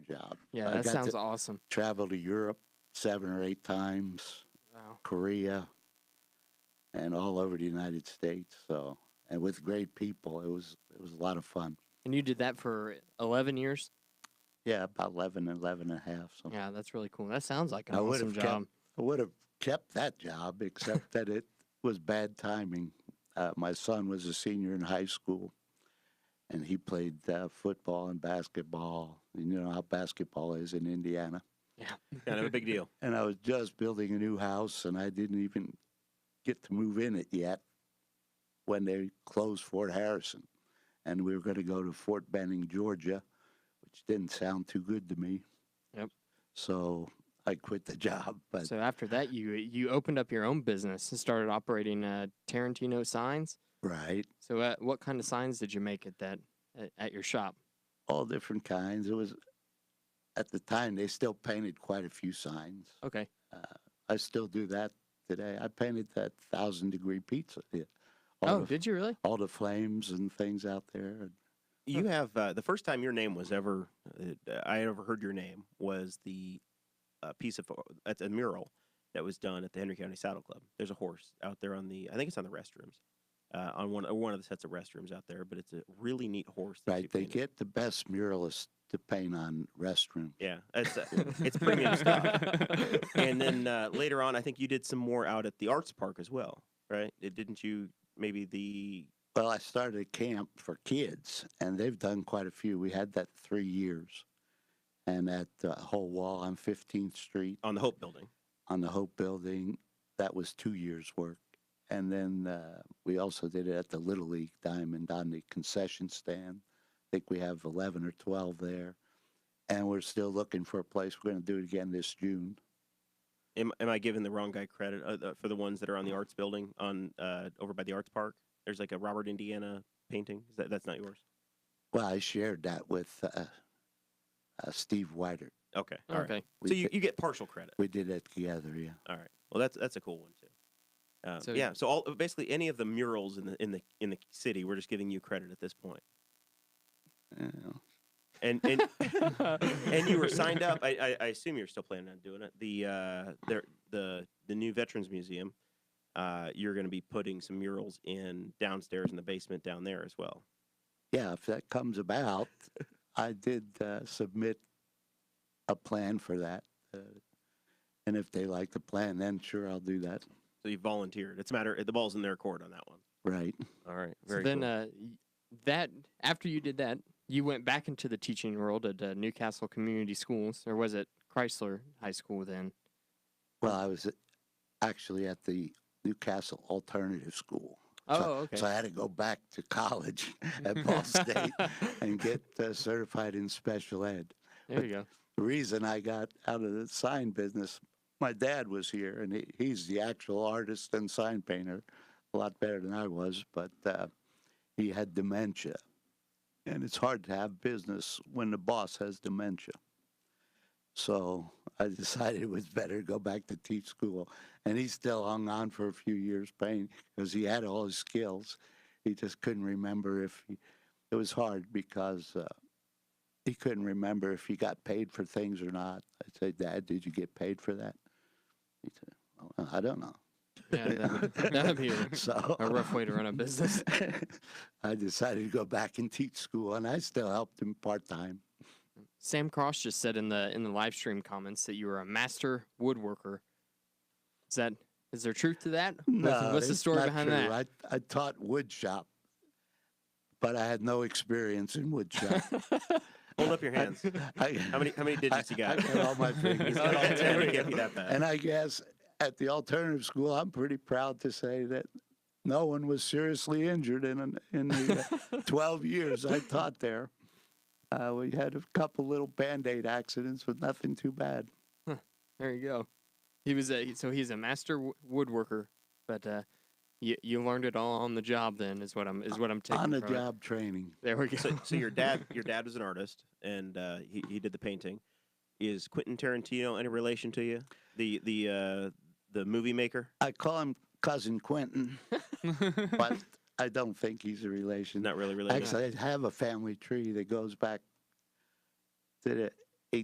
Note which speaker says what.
Speaker 1: job.
Speaker 2: Yeah,
Speaker 1: I
Speaker 2: that
Speaker 1: got
Speaker 2: sounds
Speaker 1: to
Speaker 2: awesome.
Speaker 1: Travel to Europe seven or eight times,
Speaker 2: Wow.
Speaker 1: Korea, and all over the United States. So, and with great people, it was it was a lot of fun.
Speaker 2: And you did that for 11 years?
Speaker 1: Yeah, about 11, 11 and a half. Something.
Speaker 2: Yeah, that's really cool. That sounds like an
Speaker 1: Oh. I would've
Speaker 2: awesome
Speaker 1: kept-
Speaker 2: job.
Speaker 1: I would have kept that job, except that it was bad timing. Uh, my son was a senior in high school, and he played uh, football and basketball. And you know how basketball is in Indiana.
Speaker 3: Kind of a big deal.
Speaker 1: And I was just building a new house, and I didn't even get to move in it yet when they closed Fort Harrison. And we were going to go to Fort Benning, Georgia, which didn't sound too good to me.
Speaker 2: Yep.
Speaker 1: So I quit the job. But
Speaker 2: So after that, you you opened up your own business and started operating uh, Tarantino signs.
Speaker 1: right.
Speaker 2: So uh, what kind of signs did you make at that at, at your shop?
Speaker 1: all different kinds. It was at the time they still painted quite a few signs. uh,
Speaker 2: Okay.
Speaker 1: I still do that today. I painted that thousand degree pizza. yeah. All
Speaker 2: oh,
Speaker 1: the,
Speaker 2: did you really?
Speaker 1: all the flames and things out there.
Speaker 3: You have uh, the first time your name was ever uh, I ever heard your name was the uh, piece of at a mural that was done at the Henry County Saddle Club. There's a horse out there on the I think it's on the restrooms uh, on one one of the sets of restrooms out there, but it's a really neat horse. that you
Speaker 1: Right, they
Speaker 3: painted.
Speaker 1: get the best muralists to paint on restroom.
Speaker 3: yeah, it's uh, it's premium stuff. And then uh, later on, I think you did some more out at the Arts Park as well, right? It, didn't you? Maybe the
Speaker 1: Well, I started a camp for kids, and they've done quite a few. We had that three years, and that uh, whole wall on 15th Street.
Speaker 3: on the Hope Building.
Speaker 1: on the Hope Building. That was two years' work. And then uh, we also did it at the Little League Diamond on the concession stand. I think we have 11 or 12 there. And we're still looking for a place. We're going to do it again this June.
Speaker 3: Am, am I giving the wrong guy credit uh, uh, for the ones that are on the arts building on uh, over by the arts park? There's like a Robert Indiana painting. Is that, that's not yours.
Speaker 1: Well, I shared that with uh, uh, Steve Weider.
Speaker 3: Okay. All right.
Speaker 2: okay.
Speaker 1: We,
Speaker 3: So you,
Speaker 1: did,
Speaker 3: you get partial credit.
Speaker 1: we did it together, yeah.
Speaker 3: All right. Well, that's that's a cool one too. Um,
Speaker 2: So-
Speaker 3: yeah. So all basically any of the murals in the in the in the city, we're just giving you credit at this point.
Speaker 1: Yeah.
Speaker 3: And and and you were signed up. I, I, I assume you're still planning on doing it. The uh, there the the new Veterans Museum. Uh, you're going to be putting some murals in downstairs in the basement down there as well.
Speaker 1: Yeah, if that comes about, I did uh, submit a plan for that. Uh, and if they like the plan, then sure, I'll do that.
Speaker 3: So you volunteered. It's a matter. The ball's in their court on that one.
Speaker 1: Right.
Speaker 3: All right.
Speaker 2: So then uh, y- that after you did that, you went back into the teaching world at uh, Newcastle Community Schools, or was it Chrysler High School then?
Speaker 1: Well, I was actually at the Newcastle Alternative School.
Speaker 2: Oh,
Speaker 1: So-
Speaker 2: okay.
Speaker 1: So I had to go back to college at Ball State and get uh, certified in special ed.
Speaker 2: there you go.
Speaker 1: The reason I got out of the sign business, my dad was here and he, he's the actual artist and sign painter, a lot better than I was, but uh, he had dementia. And it's hard to have business when the boss has dementia. So I decided it was better to go back to teach school. And he still hung on for a few years painting because he had all his skills. He just couldn't remember if he, it was hard because uh, he couldn't remember if he got paid for things or not. I said, Dad, did you get paid for that? He said, well, I don't know.
Speaker 2: Yeah, that would, that'd be a,
Speaker 1: so
Speaker 2: a rough way to run a business.
Speaker 1: I decided to go back and teach school, and I still helped him part time.
Speaker 2: Sam Cross just said in the in the live stream comments that you were a master woodworker. Is that is there truth to that? What's- what's the
Speaker 1: it's
Speaker 2: story
Speaker 1: not
Speaker 2: behind
Speaker 1: true.
Speaker 2: that?
Speaker 1: I, I taught wood shop, but I had no experience in wood shop.
Speaker 3: Hold up your hands.
Speaker 1: I,
Speaker 3: How many how many digits you
Speaker 1: I, I
Speaker 3: got?
Speaker 1: got all my fingers.
Speaker 3: He's got all
Speaker 2: Okay,
Speaker 3: ten.
Speaker 2: there
Speaker 3: It
Speaker 2: we
Speaker 3: can't be that bad.
Speaker 1: And I guess at the alternative school, I'm pretty proud to say that no one was seriously injured in an- in the uh, 12 years I taught there. Uh, we had a couple little band aid accidents, but nothing too bad.
Speaker 2: There you go. He was a so he's a master wo- woodworker, but uh, you you learned it all on the job. Then is what I'm is what I'm taking
Speaker 1: On the
Speaker 2: from it.
Speaker 1: job training.
Speaker 2: There we go.
Speaker 3: so, so your dad your dad was an artist and uh, he he did the painting. Is Quentin Tarantino any relation to you? The the uh, the movie maker?
Speaker 1: I call him Cousin Quentin, but I don't think he's a relation.
Speaker 3: Not really related.
Speaker 1: Actually, I have a family tree that goes back to the